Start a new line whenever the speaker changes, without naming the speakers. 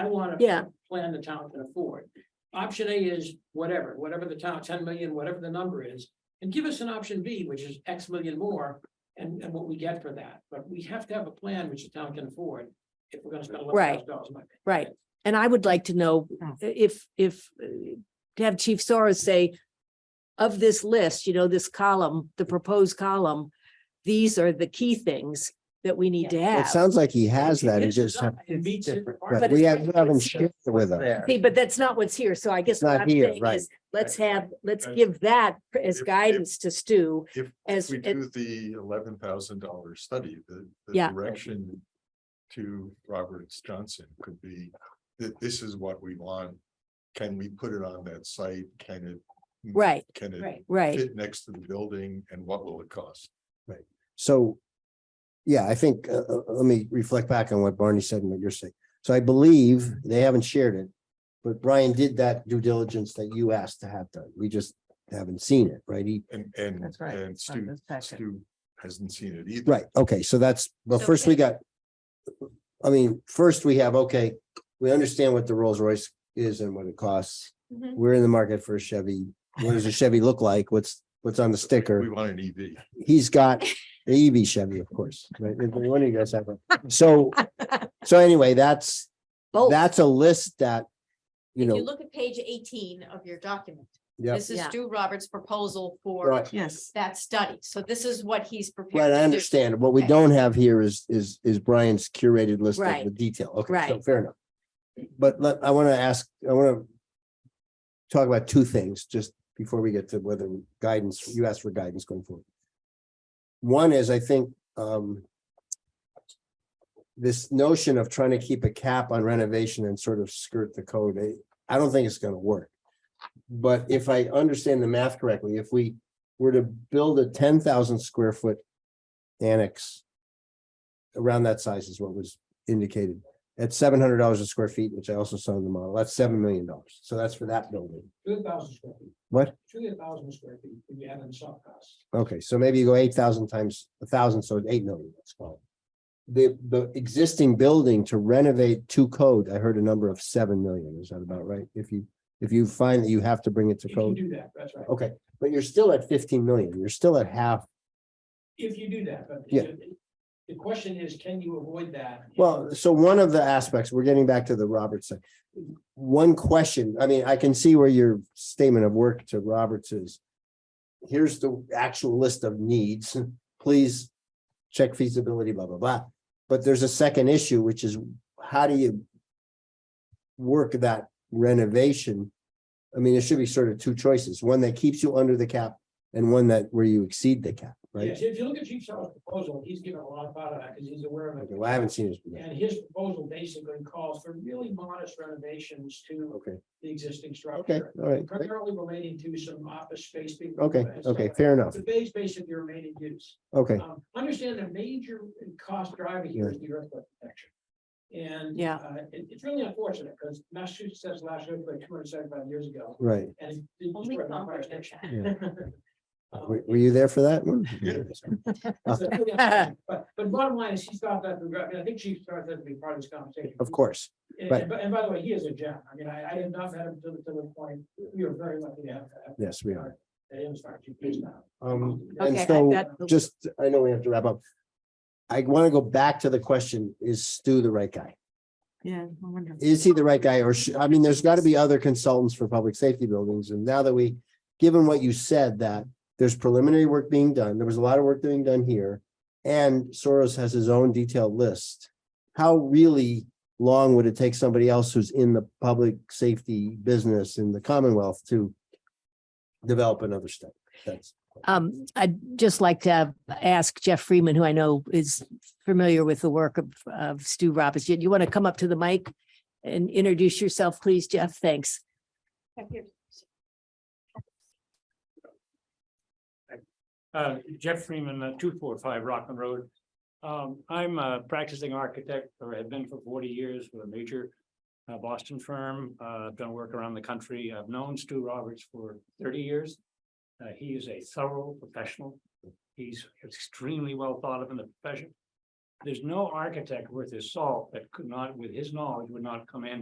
I want to
Yeah,
plan the town can afford. Option A is whatever, whatever the town, ten million, whatever the number is, and give us an option B, which is X million more. And, and what we get for that, but we have to have a plan which the town can afford if we're gonna spend eleven
Right.
thousand dollars. in my opinion.
right. And I would like to know
Oh.
if, if, uh, to have Chief Soros say, of this list, you know, this column, the proposed column, these are the key things that we need to
It
have.
sounds like he has
It
that. He
is
just,
done. It meets it.
but we have, we haven't shared it with him.
See, but that's not what's here. So I guess
It's not
what I'm
here,
saying
right.
is, let's
Right.
have, let's
Right.
give that as
If- if-
guidance to Stu
if
as,
We
it-
do the eleven thousand dollar study, the, the
Yeah.
direction to Roberts Johnson could be that this is what we want. Can we put it on that site? Can it?
right,
Can it
Right.
right.
fit next to the building and what will it cost?
So, yeah, I think, uh, uh, let me reflect back on what Barney said and what you're saying. So I believe they haven't shared it. But Brian did that due diligence that you asked to have done. We just haven't seen it, right? He,
And, and,
That's right.
and
It's not in
Stu,
this packet.
Stu hasn't seen it either.
right, okay, so that's, well, first we got. I mean, first we have, okay, we understand what the Rolls Royce is and what it costs.
Mhm.
We're in the market for a Chevy. What does a Chevy look like? What's, what's on the sticker?
We want an E EV.
he's got the EV Chevy, of course, right? If One of you guys have one. So, so anyway, that's,
Both.
that's a list that, you
If you
know,
look at page eighteen of your document,
yeah,
this is
Yeah.
Stu Roberts' proposal for
right,
Yes,
that study. So this is what he's prepared.
right,
to
I
do.
understand. What we
Okay.
don't have here is, is, is Brian's curated list of the
Right.
detail. Okay, so
Right.
fair enough. But let, I want to ask, I want to talk about two things just before we get to whether guidance, you asked for guidance going forward. One is, I think, um. This notion of trying to keep a cap on renovation and sort of skirt the code, I, I don't think it's gonna work. But if I understand the math correctly, if we were to build a ten thousand square foot annex. Around that size is what was indicated, at seven hundred dollars a square feet, which I also saw in the model, that's seven million dollars, so that's for that building.
Two thousand square feet.
What?
Two thousand square feet, if you add in soft costs.
Okay, so maybe you go eight thousand times a thousand, so it's eight million, that's fine. The, the existing building to renovate to code, I heard a number of seven million, is that about right? If you, if you find that you have to bring it to
If you
code,
do that, that's right.
okay, but you're still at fifteen million, you're still at half,
If you do that, but.
Yeah.
The question is, can you avoid that?
well, so one of the aspects, we're getting back to the Roberts thing. One question, I mean, I can see where your statement of work to Roberts is. Here's the actual list of needs, please check feasibility, blah, blah, blah. But there's a second issue, which is how do you work that renovation? I mean, there should be sort of two choices, one that keeps you under the cap and one that where you exceed the cap, right?
Yes, If you look at Chief Sowell's proposal, he's given a lot of thought to that because he's aware of
Okay,
it.
Well, I haven't seen it.
And his proposal basically calls for really modest renovations to
Okay,
the existing
okay,
structure.
all right. great.
Primarily relating to some office space. being-
Okay, okay, fair enough.
The base basic your remaining use.
Okay,
Um, Understand the major cost driver here is the earthquake protection. And.
Yeah.
uh, It, it's really unfortunate because Massachusetts has last earthquake two hundred seventy-five years ago.
right.
And. it- it
Only
destroyed my fire
Concord did
station.
that.
Um,
Were, were you there for that one?
Yeah.
so it's really unfortunate. But, but bottom line is, he's thought that, through- I mean, I think Chief thought that to be part of this conversation.
Of course.
And,
right.
and by- and by the way, he is a gem. I mean, I, I have not met him to the, to the point, we are very lucky to have. have-
Yes, we are.
that he was our chief police now.
Um, and
Okay, I-
so
that-
just, I know we have to wrap up. I want to go back to the question, is Stu the right guy?
yeah, I wonder.
Is he the right guy? Or should, I mean, there's got to be other consultants for public safety buildings. And now that we, given what you said, that there's preliminary work being done, there was a lot of work being done here. And Soros has his own detailed list. How really long would it take somebody else who's in the public safety business in the Commonwealth to develop another study? That's.
Um, I'd just like to ask Jeff Freeman, who I know is familiar with the work of, of Stu Roberts. Do you want to come up to the mic and introduce yourself, please, Jeff? Thanks.
Uh, Jeff Freeman, two four five Rockland Road. Um, I'm a practicing architect or have been for forty years with a major uh, Boston firm. Uh, I've done work around the country. I've known Stu Roberts for thirty years. Uh, he is a thorough professional. He's extremely well thought of in the profession. There's no architect worth his salt that could not, with his knowledge, would not come in